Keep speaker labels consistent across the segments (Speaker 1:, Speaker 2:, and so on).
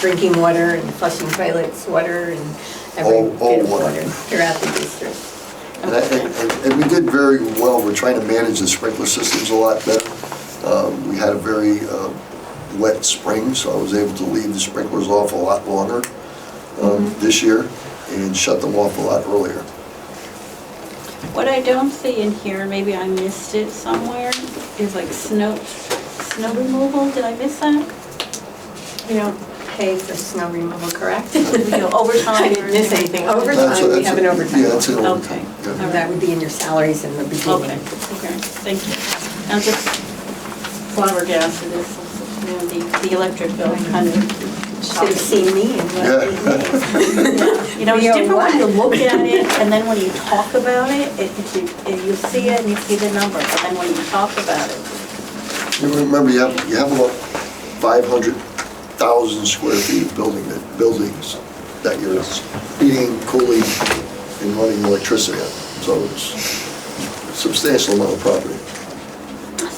Speaker 1: drinking water and flushing toilets, water and every
Speaker 2: All-
Speaker 1: bit
Speaker 2: all
Speaker 1: of
Speaker 2: water.
Speaker 1: water throughout the district.
Speaker 2: And I- And and we did very well, we're trying to manage the sprinkler systems a lot better. Um, We had a very uh, wet spring, so I was able to leave the sprinklers off a lot longer um,
Speaker 1: Mm-hmm.
Speaker 2: this year and shut them off a lot earlier.
Speaker 3: What I don't see in here, maybe I missed it somewhere, is like snow, snow removal, did I miss that?
Speaker 1: We don't pay for snow removal, correct?
Speaker 3: know, overtime
Speaker 1: I didn't miss
Speaker 3: or-
Speaker 1: anything.
Speaker 2: That's a-
Speaker 1: Overtime, we
Speaker 2: that's a-
Speaker 1: have an overtime.
Speaker 2: Yeah, that's an
Speaker 3: Okay.
Speaker 2: overtime. yeah.
Speaker 1: So That would be in your salaries in the beginning.
Speaker 3: Okay, okay, thank you. I'm just flabbergasted, this, you know, the, the electric bill kind of
Speaker 1: Should have
Speaker 3: shocking.
Speaker 1: seen me in what
Speaker 2: Yeah.
Speaker 3: You know, it's
Speaker 1: We are
Speaker 3: different when you
Speaker 1: one.
Speaker 3: look at it, and then when you talk about it, it, it- you, you see it and you see the number, but then when you talk about it,
Speaker 2: You remember, you have, you have about 500,000 square feet of building, that- buildings that you're heating, cooling, and running electricity on. So it's substantial amount of property.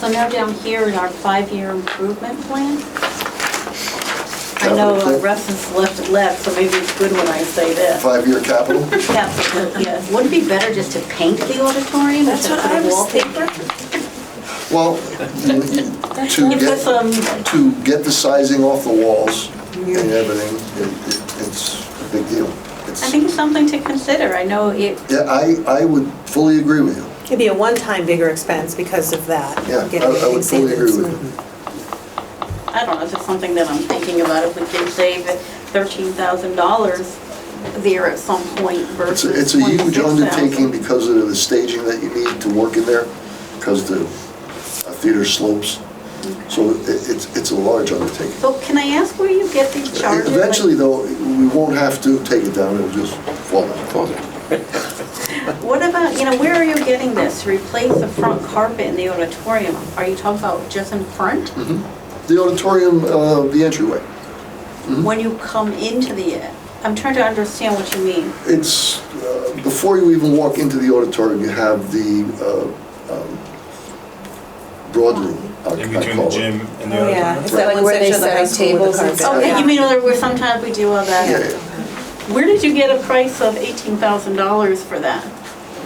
Speaker 3: so now down here in our five-year improvement plan, I
Speaker 2: Capital
Speaker 3: know uh,
Speaker 2: plan?
Speaker 3: Russ has left it left, so maybe it's good when I say this.
Speaker 2: Five-year capital?
Speaker 3: Yes, yes. Wouldn't it be better just to paint the auditorium?
Speaker 1: That's what I was thinking.
Speaker 2: Well, you- to
Speaker 3: Give us
Speaker 2: get,
Speaker 3: some,
Speaker 2: to get the sizing off the walls and everything, it- it- it's a big deal. It's-
Speaker 3: I think something to consider. I know it,
Speaker 2: Yeah, I, I would fully agree with you.
Speaker 4: It'd be a one-time bigger expense because of that.
Speaker 2: Yeah, I-
Speaker 4: getting
Speaker 2: I would
Speaker 4: everything
Speaker 2: fully
Speaker 4: saved.
Speaker 2: agree with you.
Speaker 3: I don't know, it's just something that I'm thinking about, if we can save $13,000 there at some point
Speaker 2: It's,
Speaker 3: versus
Speaker 2: a- it's a huge
Speaker 3: 26,000.
Speaker 2: undertaking because of the staging that you need to work in there, because the uh, theater slopes. So it- it's, it's a large undertaking.
Speaker 3: So can I ask where you get these charges? Like,
Speaker 2: Eventually, though, we won't have to take it down, it'll just fall down.
Speaker 3: What about, you know, where are you getting this? To Replace the front carpet in the auditorium? Are you talking about just in front?
Speaker 2: The auditorium, uh, the entryway,
Speaker 3: When you come into the, I'm trying to understand what you mean.
Speaker 2: it's, uh, before you even walk into the auditorium, you have the uh, um, broad room, I
Speaker 5: In
Speaker 2: I
Speaker 5: between the
Speaker 2: call it.
Speaker 5: gym and the
Speaker 4: Oh, yeah,
Speaker 5: other.
Speaker 4: it's that
Speaker 1: Like
Speaker 4: one
Speaker 1: where they
Speaker 4: section of the
Speaker 1: set
Speaker 4: high
Speaker 1: up
Speaker 4: school
Speaker 1: tables
Speaker 4: with the
Speaker 1: and
Speaker 4: carpet.
Speaker 1: stuff.
Speaker 3: Okay,
Speaker 1: Yeah.
Speaker 3: Oh, you mean, where where sometimes we do all
Speaker 2: Yeah,
Speaker 3: that?
Speaker 2: yeah.
Speaker 3: Where did you get a price of $18,000 for that?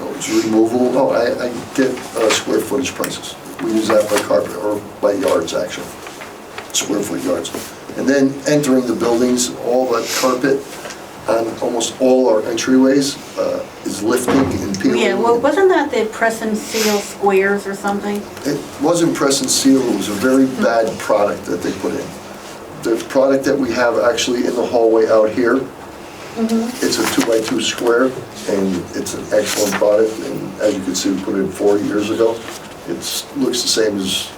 Speaker 2: No, It's removal, no, I, I get uh, square footage prices. We use that by carpet, or by yards, actually, square foot yards. And then entering the buildings, all that carpet on almost all our entryways uh, is lifting and peeling.
Speaker 3: Yeah, well, wasn't that the press and seal squares or something?
Speaker 2: It wasn't press and seal, it was a very bad product that they put in. The product that we have actually in the hallway out here, it's a two-by-two square, and it's an excellent product, and as you can see, we put it in four years ago. It's, looks the same as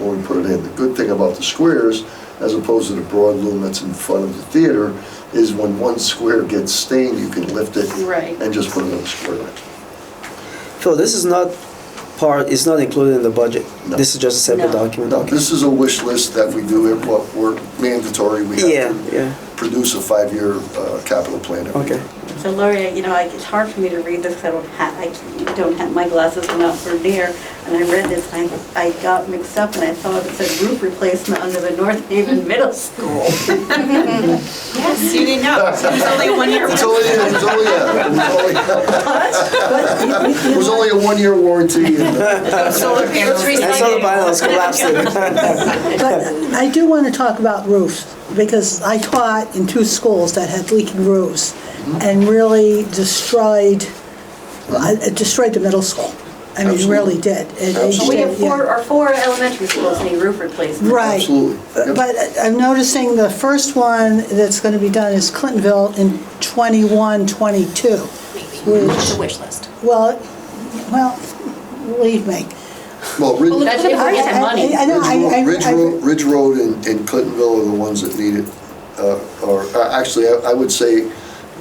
Speaker 2: when we put it in. The good thing about the squares, as opposed to the broad loom that's in front of the theater, is when one square gets stained, you can lift it
Speaker 3: Right.
Speaker 2: and just put another square in.
Speaker 6: Phil, this is not part, it's not included in the budget.
Speaker 2: No.
Speaker 6: This is just a separate
Speaker 3: No.
Speaker 6: document.
Speaker 2: No, this is a wish list that we do, it, what we're mandatory, we
Speaker 6: Yeah,
Speaker 2: have to
Speaker 6: yeah,
Speaker 2: produce a five-year uh, capital plan every
Speaker 6: okay.
Speaker 2: year.
Speaker 3: So Lori, you know, I- it's hard for me to read this, 'cause I don't have, I can't- don't have, my glasses are not for near, and I read this, and I, I got mixed up, and I thought it said roof replacement under the North Haven Middle School.
Speaker 4: Oh,
Speaker 7: Yes, you didn't know. It was only one year.
Speaker 2: It's only, it's only, a- it was only- it was only a one-year warranty. and-
Speaker 7: Solar panels.
Speaker 6: I saw the bylaws collapsing.
Speaker 8: But I do want to talk about roofs, because I taught in two schools that had leaking roofs and really destroyed, well, it destroyed the middle school. I mean, it really did. It- it
Speaker 3: But We have
Speaker 8: did, yeah.
Speaker 3: four, our four elementary schools need roof replacement.
Speaker 8: Right.
Speaker 2: Absolutely. Yep.
Speaker 8: But uh, I'm noticing the first one that's going to be done is Clintonville in 21, 22, which,
Speaker 7: wish list.
Speaker 8: well, well, believe me.
Speaker 2: Well, Ridge,
Speaker 7: That's if we're getting money.
Speaker 8: I- I- I know, I- I-
Speaker 2: Ridge
Speaker 8: I-
Speaker 2: Road, Ridge Road and and Clintonville are the ones that need it, uh, or, uh, actually, I I would say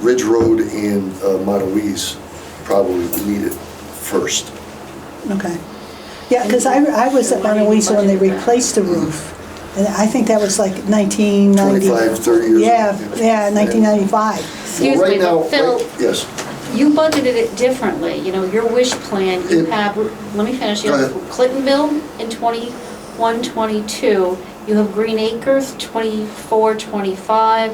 Speaker 2: Ridge Road and uh, Montoise probably need it first.
Speaker 8: Okay. Yeah, because I, I was at Mona Lisa when they replaced the roof. And I think that was like 1990.
Speaker 2: 25, 30 years
Speaker 8: Yeah,
Speaker 2: ago.
Speaker 8: yeah, 1995.
Speaker 2: Well,
Speaker 9: Excuse
Speaker 2: right
Speaker 9: me,
Speaker 2: now-
Speaker 9: but Phil,
Speaker 2: right- Yes.
Speaker 9: you budgeted it differently, you know, your wish plan, you
Speaker 2: It-
Speaker 9: have, let me finish, you
Speaker 2: Go
Speaker 9: have
Speaker 2: ahead.
Speaker 9: Clintonville in 21, 22,
Speaker 3: You have Green Acres, 24, 25,